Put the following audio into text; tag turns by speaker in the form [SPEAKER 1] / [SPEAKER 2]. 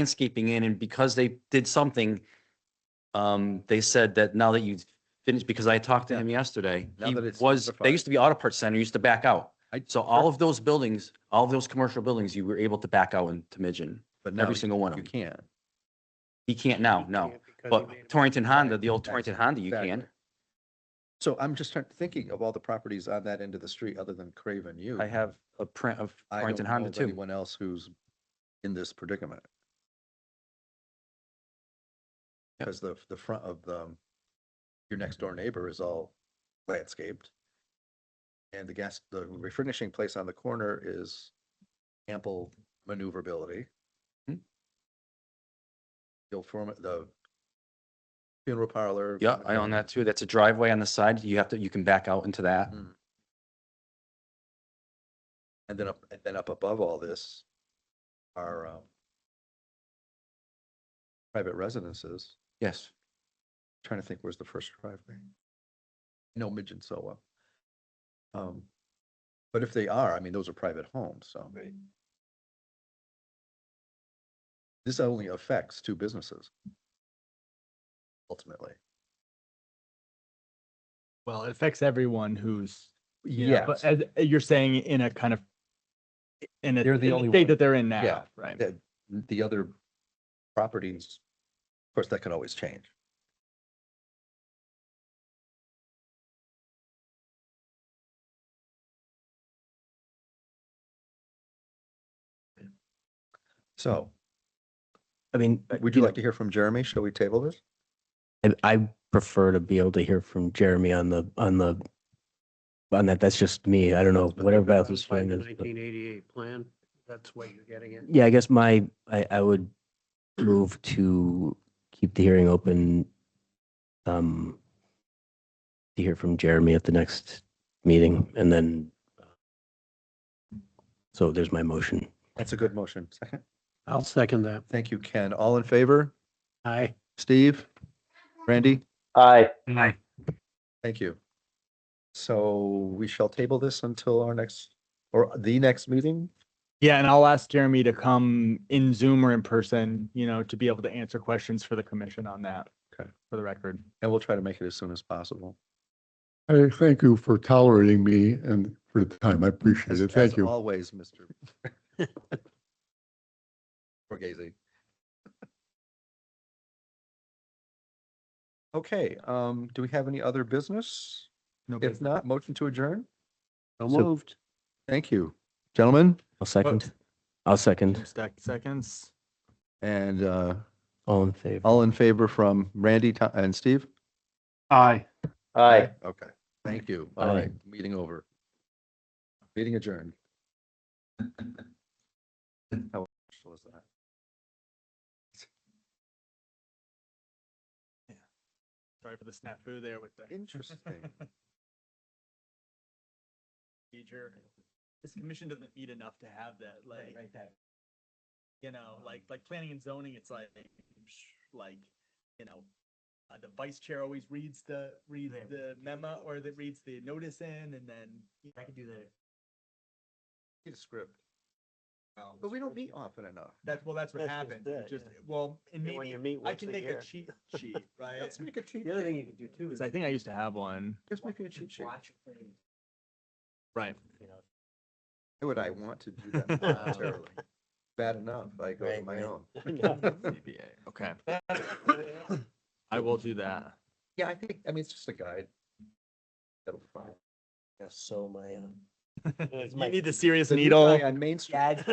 [SPEAKER 1] landscaping in and because they did something, um, they said that now that you've finished, because I talked to
[SPEAKER 2] Yeah.
[SPEAKER 1] him yesterday,
[SPEAKER 2] Now
[SPEAKER 1] he
[SPEAKER 2] that it's
[SPEAKER 1] was,
[SPEAKER 2] certified.
[SPEAKER 1] they used to be auto parts center, used to back out.
[SPEAKER 2] I-
[SPEAKER 1] So all of those buildings, all of those commercial buildings, you were able to back out into Midgeon,
[SPEAKER 2] But now
[SPEAKER 1] every single one of
[SPEAKER 2] You
[SPEAKER 1] them.
[SPEAKER 2] can't.
[SPEAKER 1] He can't now, no.
[SPEAKER 3] because he made
[SPEAKER 1] But
[SPEAKER 3] a-
[SPEAKER 1] Torrington Honda, the old
[SPEAKER 2] Exactly.
[SPEAKER 1] Torrington Honda, you
[SPEAKER 2] Exactly.
[SPEAKER 1] can.
[SPEAKER 2] So I'm just trying- thinking of all the properties on that end of the street other than Craven U.
[SPEAKER 1] I have a print of
[SPEAKER 2] I
[SPEAKER 1] Torrington
[SPEAKER 2] don't know
[SPEAKER 1] Honda
[SPEAKER 2] of
[SPEAKER 1] too.
[SPEAKER 2] Anyone else who's in this predicament?
[SPEAKER 1] Yep.
[SPEAKER 2] Because the, the front of the, your next door neighbor is all landscaped. And the gas, the refurnishing place on the corner is ample maneuverability.
[SPEAKER 1] Hmm.
[SPEAKER 2] You'll form it- the funeral parlor. uh,
[SPEAKER 1] Yeah, I own that too. That's a driveway on the side. You have to, you can back out into that.
[SPEAKER 2] Mm. And then up, and then up above all this are um, private residences.
[SPEAKER 1] Yes.
[SPEAKER 2] Trying to think, where's the first driveway? No, Midgeon so well. Um, but if they are, I mean, those are private homes, so.
[SPEAKER 3] Right.
[SPEAKER 2] This only affects two businesses. Ultimately.
[SPEAKER 4] Well, it affects everyone who's, yeah,
[SPEAKER 2] Yes.
[SPEAKER 4] but as uh, you're saying in a kind of, in a,
[SPEAKER 2] They're the
[SPEAKER 4] in the
[SPEAKER 2] only one.
[SPEAKER 4] state that they're in
[SPEAKER 2] Yeah.
[SPEAKER 4] now, right?
[SPEAKER 2] that the other properties, of course, that could always change. So
[SPEAKER 5] I mean, uh,
[SPEAKER 2] would you
[SPEAKER 5] know,
[SPEAKER 2] like to hear from Jeremy? Shall we table this?
[SPEAKER 5] I I prefer to be able to hear from Jeremy on the, on the, on that. That's just me. I don't know,
[SPEAKER 3] But
[SPEAKER 5] whatever
[SPEAKER 3] they're
[SPEAKER 5] else is
[SPEAKER 3] bound by
[SPEAKER 5] fine.
[SPEAKER 3] the
[SPEAKER 5] is, but-
[SPEAKER 3] Nineteen eighty-eight plan, that's what you're getting at.
[SPEAKER 5] Yeah, I guess my, I, I would move to keep the hearing open. Um, to hear from Jeremy at the next meeting and then. So there's my motion.
[SPEAKER 2] That's a good motion. Second.
[SPEAKER 3] I'll second that.
[SPEAKER 2] Thank you, Ken. All in favor?
[SPEAKER 3] Aye.
[SPEAKER 2] Steve? Randy?
[SPEAKER 5] Aye.
[SPEAKER 3] Aye.
[SPEAKER 2] Thank you. So we shall table this until our next, or the next meeting?
[SPEAKER 4] Yeah, and I'll ask Jeremy to come in Zoom or in person, you know, to be able to answer questions for the commission on that.
[SPEAKER 2] Okay.
[SPEAKER 4] For the record.
[SPEAKER 2] And we'll try to make it as soon as possible.
[SPEAKER 6] Hey, thank you for tolerating me and for the time. I appreciate
[SPEAKER 2] As-
[SPEAKER 6] it.
[SPEAKER 2] as
[SPEAKER 6] Thank you.
[SPEAKER 2] Always, Mr. Borghese. Okay, um, do we have any other business?
[SPEAKER 4] No
[SPEAKER 2] If not, motion to adjourn?
[SPEAKER 3] So
[SPEAKER 5] So-
[SPEAKER 3] moved.
[SPEAKER 2] Thank you, gentlemen,
[SPEAKER 5] I'll second. I'll second.
[SPEAKER 4] sec- Seconds.
[SPEAKER 2] and, uh,
[SPEAKER 5] All in favor.
[SPEAKER 2] all in favor from Randy Ti- and Steve?
[SPEAKER 3] Aye.
[SPEAKER 2] Aye. Okay, thank you. All
[SPEAKER 5] Aye.
[SPEAKER 2] right, meeting over. Meeting adjourned. How official is that?
[SPEAKER 4] Sorry for the snafu there with the.
[SPEAKER 2] Interesting.
[SPEAKER 4] Feature. This commission doesn't meet enough to have that, like, you know, like, like planning and zoning, it's like, sh- like, you know, uh, the vice chair always reads the, reads the memo or that reads the notice in and then. I can do that.
[SPEAKER 2] Need a script. But we don't meet often enough.
[SPEAKER 4] That's, well, that's what
[SPEAKER 3] That's just
[SPEAKER 4] happened,
[SPEAKER 3] it,
[SPEAKER 4] It just,
[SPEAKER 3] yeah.
[SPEAKER 4] well, and
[SPEAKER 3] And when
[SPEAKER 4] maybe
[SPEAKER 3] you meet
[SPEAKER 4] I
[SPEAKER 3] once
[SPEAKER 4] can
[SPEAKER 3] a
[SPEAKER 4] make a
[SPEAKER 3] year.
[SPEAKER 4] cheat sheet, right?
[SPEAKER 2] Let's make a cheat.
[SPEAKER 3] The other thing you can do too is.
[SPEAKER 4] I think I used to have one.
[SPEAKER 2] Just make it a cheat sheet.
[SPEAKER 4] Right.
[SPEAKER 2] Why would I want to do that voluntarily? Bad enough, I go to
[SPEAKER 3] Right,
[SPEAKER 2] my
[SPEAKER 3] right.
[SPEAKER 2] own.
[SPEAKER 4] okay. I will do that.
[SPEAKER 2] Yeah, I think, I mean, it's just a guide. That'll be fine.
[SPEAKER 5] So my, uh,
[SPEAKER 4] You need the serious
[SPEAKER 2] The new
[SPEAKER 4] needle.
[SPEAKER 2] guy On Main Street.